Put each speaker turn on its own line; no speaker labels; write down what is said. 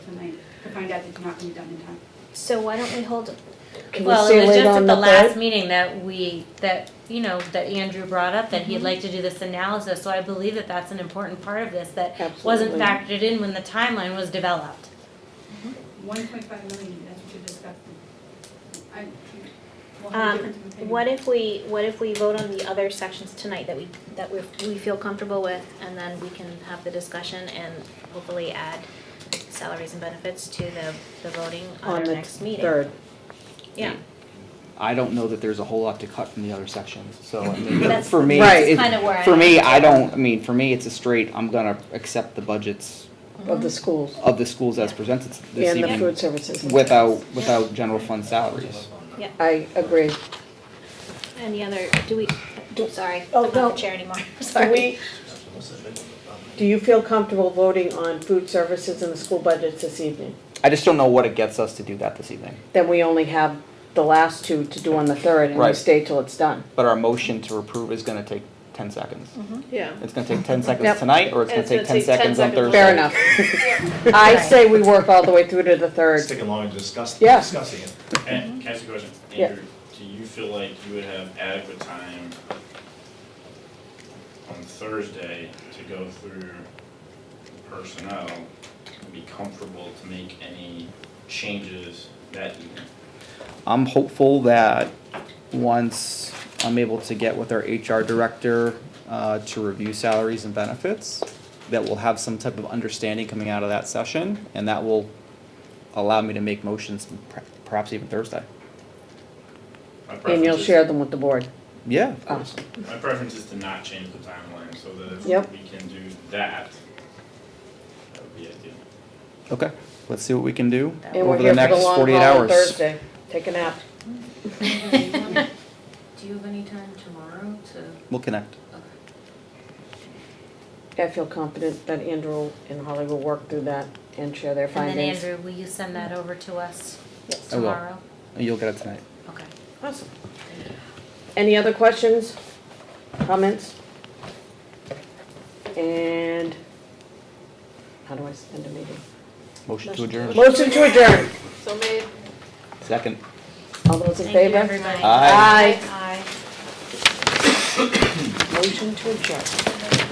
tonight to find out that it's not gonna be done in time.
So why don't we hold,
Can we
Well,
say
it was
late
just
on
at the last
third?
meeting that we, that, you know, that Andrew brought up, that
Mm-hmm.
he'd like to do this analysis, so I believe that that's an important part of this, that wasn't
Absolutely.
factored in when the timeline was developed.
One point five million, that's what you're discussing. I, we'll have a
um,
difference of opinion.
what if we, what if we vote on the other sections tonight that we, that we, we feel comfortable with? And then we can have the discussion and hopefully add salaries and benefits to the, the voting on
On
our
the
next meeting.
Third.
Yeah,
I don't know that there's a whole lot to cut from the other sections, so I mean,
That's-
for me,
Right.
it-
kinda where I
for me,
am.
I don't, I mean, for me, it's a straight, I'm gonna accept the budgets
Of the schools
of the schools as presented this
and the
evening
food services.
without, without general fund salaries.
I agree.
any other, do we, do, sorry,
Oh,
I'm not
no.
the chair anymore,
Do
sorry.
we, do you feel comfortable voting on food services and the school budgets this evening?
I just don't know what it gets us to do that this evening,
Then we only have the last two to do on the third and we
Right.
stay till it's done.
but our motion to approve is gonna take ten seconds.
Mm-hmm.
Yeah.
It's gonna take ten seconds
Yep.
tonight, or it's
And
gonna
it's gonna
take ten
take 10
seconds on
seconds on
Thursday.
Fair enough. I say we work all the way through to the
It's
third.
taking long to discuss,
Yeah.
discussing it.
And can I ask you a question?
Mm-hmm. Yeah.
Andrew, do you feel like you would have adequate time on Thursday to go through personnel and be comfortable to make any changes that evening?
I'm hopeful that once I'm able to get with our HR director uh, to review salaries and benefits, that we'll have some type of understanding coming out of that session, and that will allow me to make motions per- perhaps even Thursday.
My
And you'll
preference is-
share them with the board.
Yeah, of
Oh.
course.
My preference is to not change the timeline, so that
Yep.
if we can do that, that would be ideal.
Okay, let's see what we can do
And
And we're
over
here
the
for the
next
long
forty-eight
haul on
hours.
Thursday. Take a nap.
Do you have any time tomorrow to?
We'll connect.
I feel confident that Andrew and Holly will work through that and share their
And then
findings.
Andrew, will you send that over to us
I will.
tomorrow?
And You'll get it tonight.
Okay.
Awesome. Any other questions, comments? And how do I end a meeting?
Motion to adjourn.
Motion to adjourn.
So made.
Second.
All those in
Thank you,
favor?
everybody.
Aye.
Motion to adjourn.